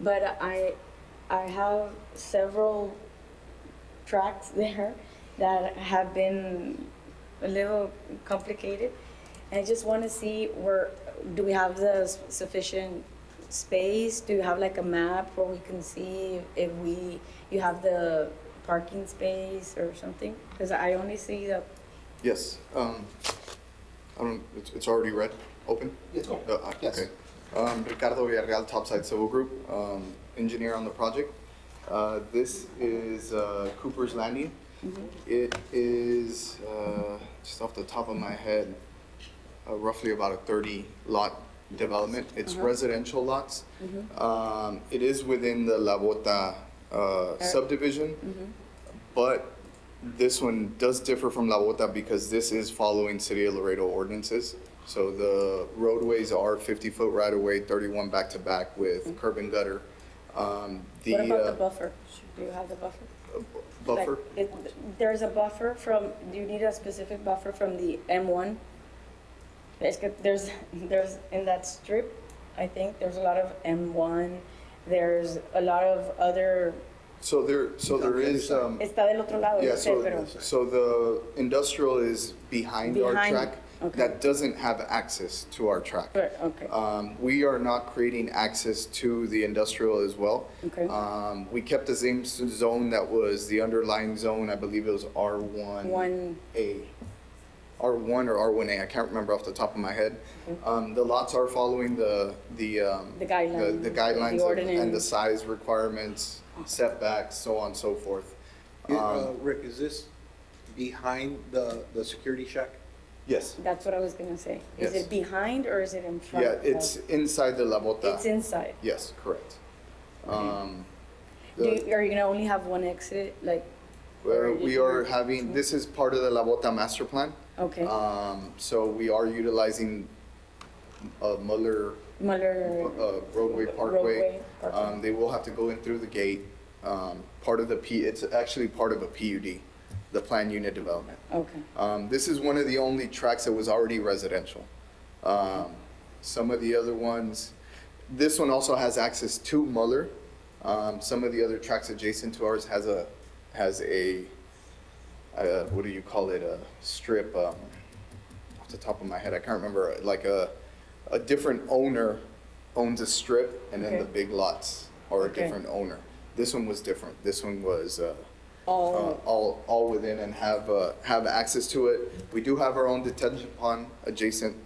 but I, I have several tracks there that have been a little complicated. I just want to see where, do we have the s- sufficient space? Do you have like a map where we can see if we, you have the parking space or something? Because I only see the, Yes, um, I don't, it's, it's already red, open? Yes. Uh, uh, Yes. okay. Um, Ricardo Villarreal, Topside Civil Group, um, engineer on the project. Uh, this is, uh, Cooper's Landing. It is, uh, just off the top of my head, uh, roughly about a thirty lot development. It's residential lots. Um, it is within the La Bota, uh, subdivision. But this one does differ from La Bota because this is following City of Laredo ordinances. So the roadways are 50-foot right-of-way, 31 back-to-back with curb and gutter. Um, The Mm-hmm. what about the uh, buffer? Do you have the buffer? Like, buffer, it- There's a buffer from, do you need a specific buffer from the M1? There's, there's, there's, in that strip, I think, there's a lot of M1, there's a lot of other, so there, so there is, um, está del otro lado, yeah, no sé, so, pero, so the industrial is behind our Behind, track. okay. That doesn't have access to our track. but, okay, Um, We are not creating access to the industrial as well. Okay. Um, We kept the same s- zone that was the underlying zone, I believe it was R1. One. A. R1 or R1A, I can't remember off the top of my head. Um, The lots are following the, the. um, The guidelines, the The guidelines of- and the ordinance. size requirements, setbacks, so on and so forth. Yeah, uh, Um, Rick, is this behind the, the security shack? Yes. that's what I was gonna say. Is Yes. it behind or is it in front? Yeah, of- it's inside the La Bota. It's inside. Yes, correct. Um, Do, the- you- are you gonna only have one exit, like, Where we are having, this is part of the La Bota master plan. okay, Um, so we are utilizing, uh, Muller, Muller, uh, roadway parkway. Roadway, parkway. Um, they will have to go in through the gate, um, part of the P, it's actually part of a PUD, the plan unit development. okay, Um, this is one of the only tracks that was already residential. Um, some of the other ones, this one also has access to Muller. Um, some of the other tracks adjacent to ours has a, has a, uh, what do you call it, a strip, um, off the top of my head, I can't remember, like a, a different owner owns a strip and then the Okay. big lots are a Okay. different owner. This one was different. This one was, uh, uh, all, all, all within and have, uh, have access to it. We do have our own detention pond adjacent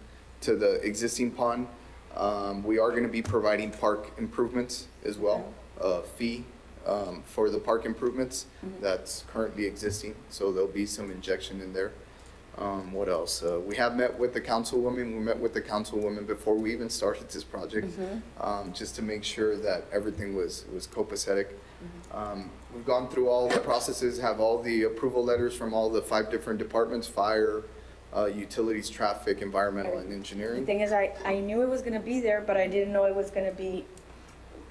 to the existing pond. Um, we are gonna be providing park improvements as well, a fee, um, for the park improvements that's currently existing, so there'll be some injection in there. Um, what else? Uh, we have met with the councilwoman. We met with the councilwoman before we even started this project, Mm-hmm. um, just to make sure that everything was was copacetic. Mm-hmm. Um, we've gone through all the processes, have all the approval letters from all the five different departments: fire, uh, utilities, traffic, environmental, and The engineering. thing is, I, I knew it was gonna be there, but I didn't know it was gonna be,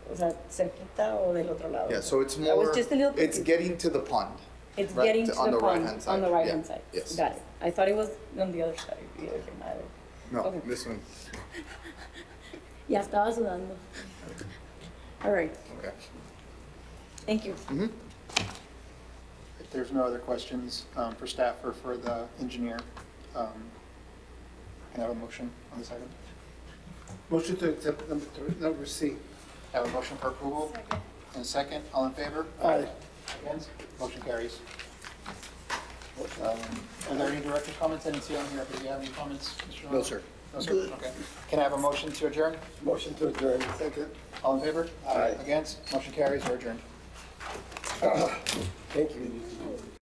was that cerquita o del otro lado? Yeah, so it's I was more. just a little It's confused. getting to the pond. It's right, getting to on the the pond, right-hand on the side. right Yeah, hand side. yes. Got it. I thought it was on the other side, the other side. No, Okay. this one. Ya estaba sudando. All right, Okay. Mm-hmm. thank you. If there's no other questions um, for staff or for the engineer, um, can I have a motion on this item? Motion to accept number three, number C. I Have a motion for approval? And a second, all in favor? Aye. Against? Motion carries. Um, Are there any director comments? I didn't see on here, but do you have any comments? Mr. No, sir. No, sir, okay. Can I have a motion to adjourn? Motion to adjourn. Second. All in favor? Aye. Against? Motion carries, we're adjourned. Thank you.